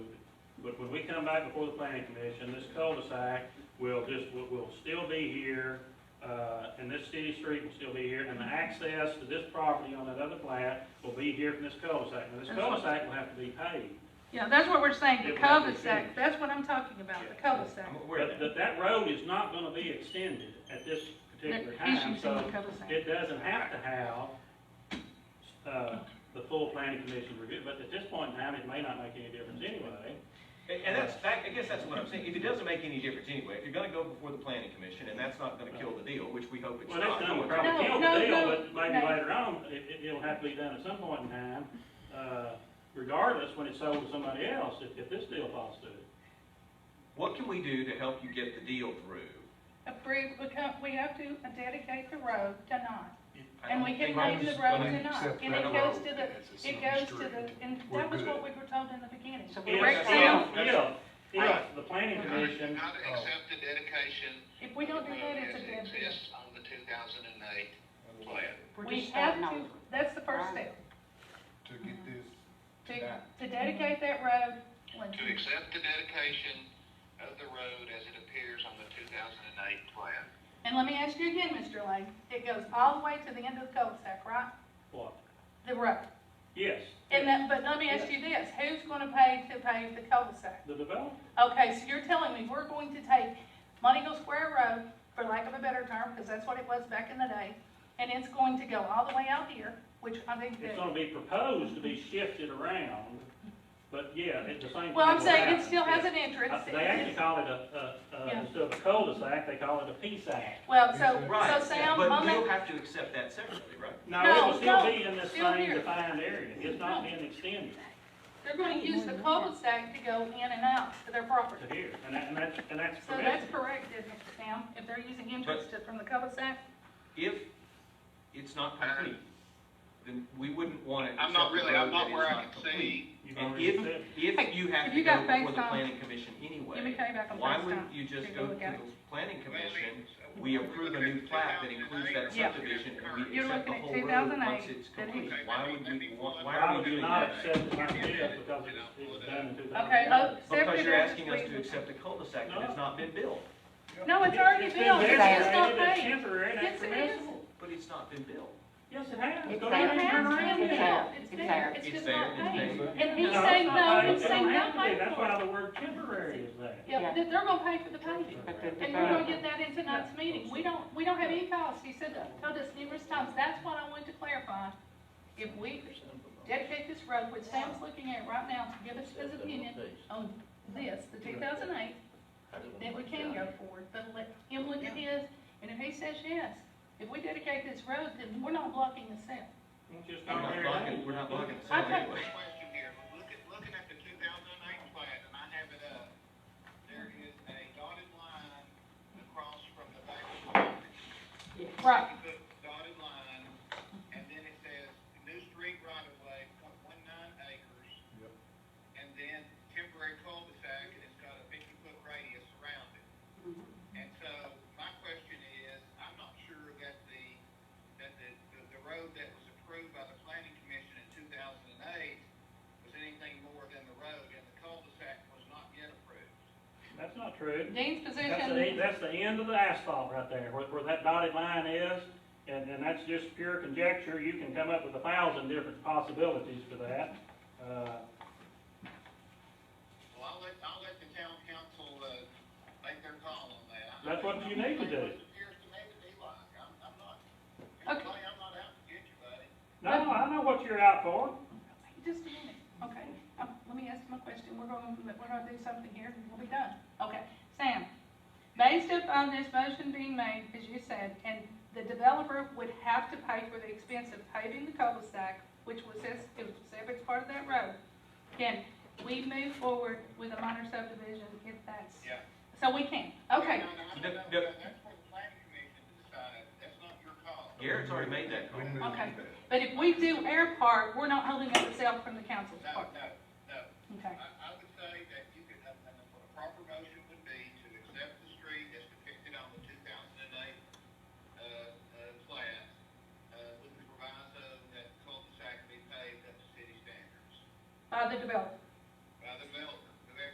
when we come back before the planning commission, this cul-de-sac will just, will, will still be here, uh, and this city street will still be here, and the access to this property on that other plat will be here from this cul-de-sac. Now, this That's what- cul-de-sac will have to be paved, Yeah, that's what we're saying, It the would have to be cul-de-sac, finished. that's what I'm talking about, the cul-de-sac. I'm aware but, of that. but that road is not gonna be extended at this particular The time, issues in the so cul-de-sac. it doesn't have to have, uh, the full planning commission review, but at this point in time, it may not make any difference anyway. And and that's, that- I guess that's what I'm saying, if it doesn't make any difference anyway, if you're gonna go before the planning commission, and that's not gonna kill the deal, which we hope it's Well, not. next time no we'll one's probably No, kill no, the deal, no, but maybe no. later on, it, it- it'll have to be done at some point in time, uh, regardless, when it's sold to somebody else, if, if this deal falls through. What can we do to help you get the deal through? Approve, we can't- we have to dedicate the road tonight, I and don't we can think- name the road I mean, tonight, accept and that it goes road to as the, a it goes to city the, street. and We're that was what we good. were told in the beginning, so If, we're Yes, saying, if, if, if the planning commission, Not Oh. accept the dedication. if we don't do of the that, road it's a dead as it deal. exists On the two thousand and eight plan. We're We just have starting to, over. that's the first Right. step, to get this to, tonight. to dedicate that road. when- To accept the dedication of the road as it appears on the two thousand and eight plan. And let me ask you again, Mr. Lane, it goes all the way to the end of the cul-de-sac, right? what? The road. Yes. And that, but let me ask you this, who's gonna pay to pave the cul-de-sac? The developer, Okay, so you're telling me we're going to take Montego Square Road, for lack of a better term, because that's what it was back in the day, and it's going to go all the way out here, which I think it's that, gonna be proposed to be shifted around, but yeah, it's the same. thing well, I'm will saying it happen. still has an Uh, entrance. They actually call it a, a, a, Yeah. instead of a cul-de-sac, they call it a P-sac. Well, so, Right, so Sam, but on we'll that, have to accept that separately, right? No, No, it will still no, be in this still same here. defined area, it's not being extended. they're gonna use the cul-de-sac to go in and out to their property. to here, and that, and that's, and that's So permitted. that's correct, isn't it, Sam, if they're using entrance to, from the cul-de-sac? If it's not complete, then we wouldn't want to. I'm not really, I'm not where I can see You've And already if, said- if you have if to you go got before the FaceTime, planning commission anyway. Give me Kenny back on Why FaceTime. wouldn't you Here, go just go to look at the it. planning commission? Well, We approve a new plat that includes that Yeah. subdivision and we You're accept the looking at whole road once 2008, it's that he- complete. Why would we, want- why I are we would doing not that? accept it like this because it's, it's done in two thousand. Okay, uh, Because you're Separate asking us to entrance, accept a cul-de-sac that No. has not been built, No, it's already been built, it's there, just not created as paid. Temporary, that's Yes, it permissible. but it's not been built. Yes, it has. It's Go there. ahead and It turn has around. been built, It's there. it's It's there, there. it's It's just there, not it's paid. there. And No, he's it's not saying no, paid. It he's don't saying have no to be. pay That's for why it. the word temporary is there. Yeah, Yeah. they're they're gonna pay for the paving. But the And we're gonna get developer, that in tonight's meeting, we don't, we don't have any costs, he said, that- told us numerous times, that's what I wanted to clarify. If we dedicate this road, which Sam's looking at right now to give us his opinion on this, the two thousand eight, then we can go forward, but let him look at his, and if he says yes, if we dedicate this road, then we're not blocking the sale. Just go We're not ahead. blocking, we're not blocking the sale Okay. anyway. Question here, look at, looking at the two thousand and eight plan, and I have it up, there is a dotted line across from the back of the property. Right, You put Dotted line, and then it says, new street right of way, point one nine acres. Yep. And then temporary cul-de-sac, and it's got a fifty foot radius around it. And so, my question is, I'm not sure that the, that the, the- the road that was approved by the planning commission in two thousand and eight was anything more than the road, and the cul-de-sac was not yet approved. That's not true. Dean's That's the, position, that's the end of the asphalt right there, where, where that dotted line is, and, and that's just pure conjecture, you can come up with a thousand different possibilities for that. Uh, Well, I'll let, I'll let the town council, uh, make their call on that. I- That's what you need to do. It appears to me to be like, I'm, I'm not, Okay. anybody, I'm not out to get you, buddy. No, I know what you're out for, just a minute, okay, um, let me ask my question, we're gonna, we're gonna do something here, and we'll be done. Okay, Sam, based upon this motion being made, as you said, and the developer would have to pay for the expense of paving the cul-de-sac, which was his, it was Everett's part of that road, can we move forward with a minor subdivision if that's? Yeah. So we can, okay, No, No, no, no. no, that's for the planning commission to decide, that's not your call. Garrett's already made that call. We moved Okay. that. but if we do our part, we're not holding up ourselves from the council's No, part, no, no, okay? I, I would say that you could, a, a a proper motion would be to accept the street as depicted on the two thousand and eight, uh, uh, plan, uh, with the proviso that cul-de-sac be paved up to city standards. By the developer,